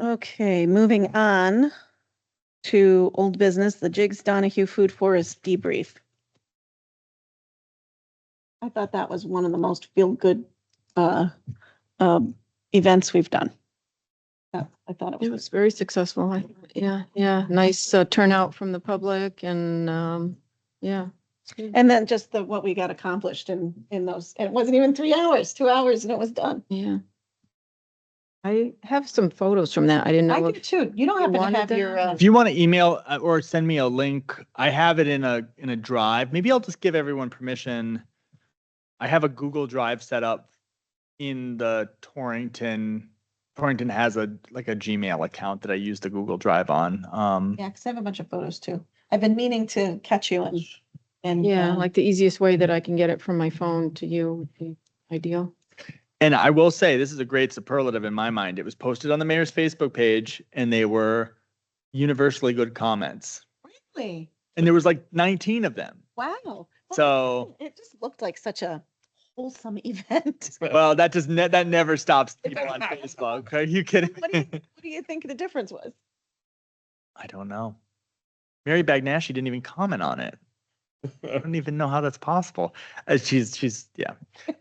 Okay, moving on to old business, the Jigs Donahue Food Forest debrief. I thought that was one of the most feel-good uh, um, events we've done. That- I thought It it was, was very successful. I- Yeah, yeah, nice uh, turnout from the public and, um, yeah. and then just the, what we got accomplished in, in those, and it wasn't even three hours, two hours, and it was done. Yeah. I have some photos from that. I didn't I know. did too. You don't happen wanted to have to your, uh, have- If you want to email uh, or send me a link, I have it in a, in a drive. Maybe I'll just give everyone permission. I have a Google Drive set up in the Torrington. Torrington has a, like a Gmail account that I use the Google Drive on. Um, yeah, because I have a bunch of photos too. I've been meaning to catch you and, and. Yeah, um, like the easiest way that I can get it from my phone to you would be ideal. And I will say, this is a great superlative in my mind. It was posted on the mayor's Facebook page and they were universally good comments. Really? And there was like 19 of them. Wow. Well, it So- didn't- It just looked like such a wholesome event. Well, that does, ne- that never stops people on Facebook. Are you kidding? What do you, what do you think the difference was? I don't know. Mary Bagnashi didn't even comment on it. I don't even know how that's possible. Uh, she's she's yeah,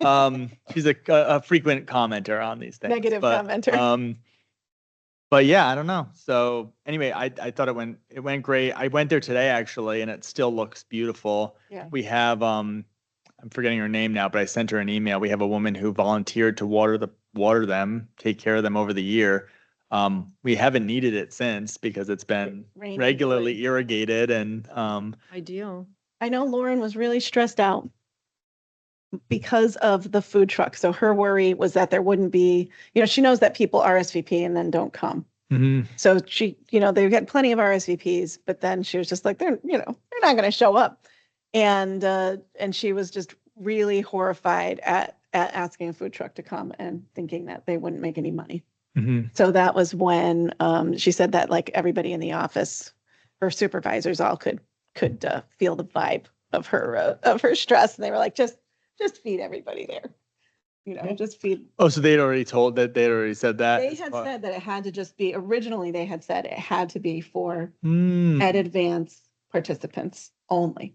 um, she's a, a frequent commenter on these things. Negative but, commenter. Um, but yeah, I don't know. So anyway, I I thought it went it went great. I went there today actually, and it still looks beautiful. Yeah. We have um, I'm forgetting her name now, but I sent her an email. We have a woman who volunteered to water the water them, take care of them over the year. Um, we haven't needed it since because it's been Rain and regularly flurry. irrigated and um Ideal. I know Lauren was really stressed out because of the food truck. So her worry was that there wouldn't be, you know, she knows that people RSVP and then don't come. So she, you know, they've got plenty of RSVPs, but then she was just like, they're, you know, they're not going to show up. And, uh, and she was just really horrified at, at asking a food truck to come and thinking that they wouldn't make any money. So that was when, um, she said that like everybody in the office, her supervisors all could, could, uh, feel the vibe of her, uh, of her stress. And they were like, just, just feed everybody there. You know, just feed, oh so they'd already told that they'd already said that they as had far- said that it had to just be, originally they had said it had to be for Hmm. at advance participants only.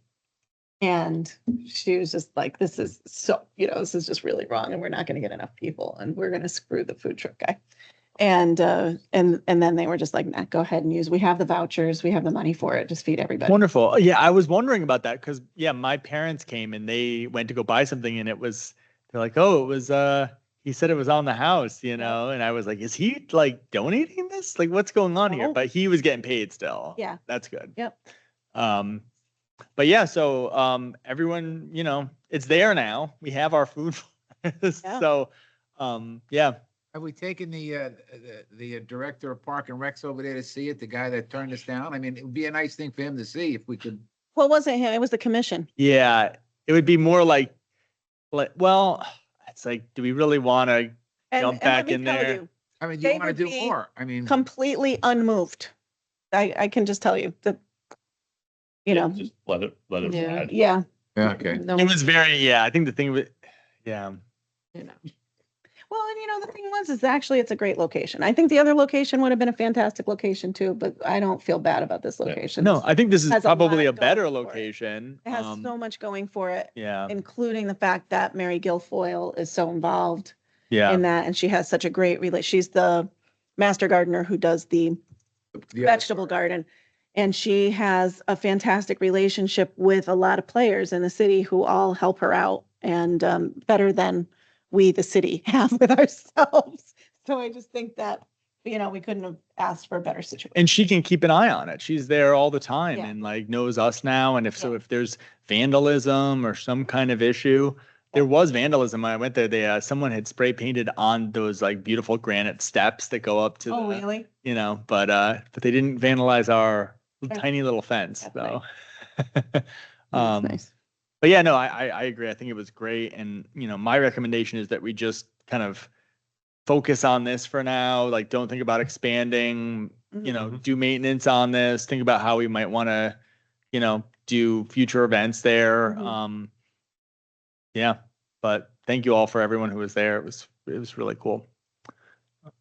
And she was just like, this is so, you know, this is just really wrong and we're not going to get enough people and we're going to screw the food truck guy. And, uh, and, and then they were just like, nah, go ahead and use, we have the vouchers, we have the money for it, just feed everybody. wonderful Oh, yeah i was wondering about that because yeah my parents came and they went to go buy something and it was they're like oh it was uh he said it was on the house you know and i was like is he like donating this like what's going on here No. but he was getting paid still Oh. Yeah. that's good Yep. um but yeah so um everyone you know it's there now we have our food so um yeah Have we taken the, uh, the, the director of Park and Recs over there to see it, the guy that turned us down? I mean, it would be a nice thing for him to see if we could. Well, it wasn't him, it was the commission. Yeah, it would be more like, like, well, it's like, do we really want to? And- Jump and let back me in tell there. you, I mean, do They you want would to do be more? I mean, Completely unmoved. I, I can just tell you that, you know, Just let it, let it Yeah. ride. yeah. Yeah, okay. No, It was very, yeah. I think the thing with, yeah, you know. Well, and you know, the thing was, is actually it's a great location. I think the other location would have been a fantastic location too, but I don't feel bad about this Yeah. location. no, I think this is Has a lot probably a going better for it. location. It has um, so much going for it, Yeah, including the fact that Mary Guilfoyle is so involved yeah. in that. And she has such a great rela, she's the master gardener who does the the other vegetable part. garden. And she has a fantastic relationship with a lot of players in the city who all help her out and um, better than we, the city, have with ourselves. So I just think that, you know, we couldn't have asked for a better situation. And she can keep an eye on it. She's there all the time Yeah. and like knows us now. And if so, Yeah. if there's vandalism or some kind of issue, there was vandalism when I went there. They, uh, someone had spray painted on those like beautiful granite steps that go up to Oh, the, really? you know, but uh, but they didn't vandalize our Right. tiny little fence That's though. That's um, nice. But yeah, no, I, I I agree. I think it was great, and you know, my recommendation is that we just kind of focus on this for now. Like, don't think about expanding. Mm-hmm. You know, do maintenance on this. Think about how we might want to, you know, do future events there. Mhm. Um, yeah, but thank you all for everyone who was there. It was it was really cool.